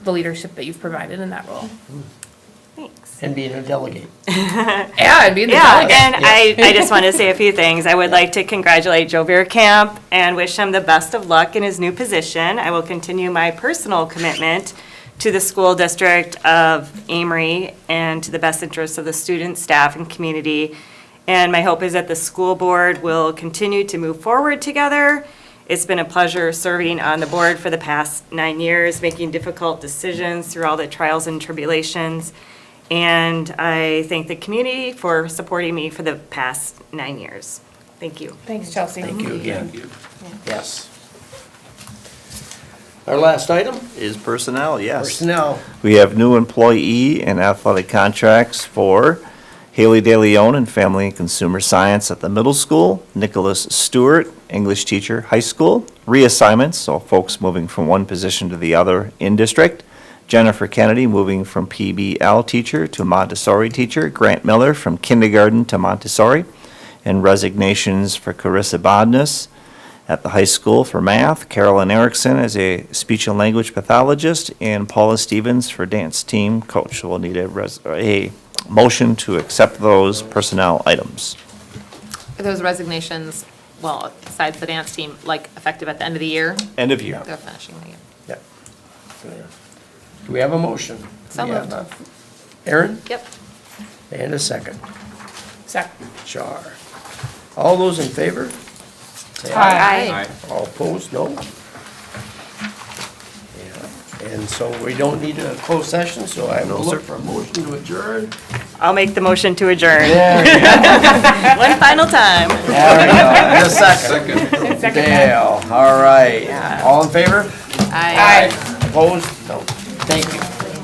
the leadership that you've provided in that role. Thanks. and being a delegate. Yeah, I'd be the Yeah, delegate. and I, I just want to say a few things. I would like to congratulate Joe Camp and wish him the best of luck in his new position. I will continue my personal commitment to the school district of Amory and to the best interests of the students, staff, and community. And my hope is that the school board will continue to move forward together. It's been a pleasure serving on the board for the past nine years, making difficult decisions through all the trials and tribulations. And I thank the community for supporting me for the past nine years. Thank you. Thanks, Chelsea. Thank you again. Yes. Our last item, Is personnel, yes. personnel. We have new employee and athletic contracts for Haley De Leon in Family and Consumer Science at the middle school, Nicholas Stewart, English teacher, high school, reassignments, so folks moving from one position to the other in district, Jennifer Kennedy moving from PBL teacher to Montessori teacher, Grant Miller from kindergarten to Montessori, and resignations for Carissa Bodnas, at the high school for math, Carolyn Erickson as a speech and language pathologist, and Paula Stevens for dance team coach. So We'll need a, res- a motion to accept those personnel items. Are those resignations, well, besides the dance team, like effective at the end of the year? End of year. They're finishing the year. Yep. Do we have a motion? So We have moved. a- Aaron, Yep. and a second. Sec- Char. All those in favor? Say Aye. All opposed, no? Yeah. And so we don't need a closed session, so I will look for a motion to adjourn. I'll make the motion to adjourn. Yeah. One final time. a second. Second. Dale, all right. All in favor? Aye. Aye. Opposed? No. Thank you.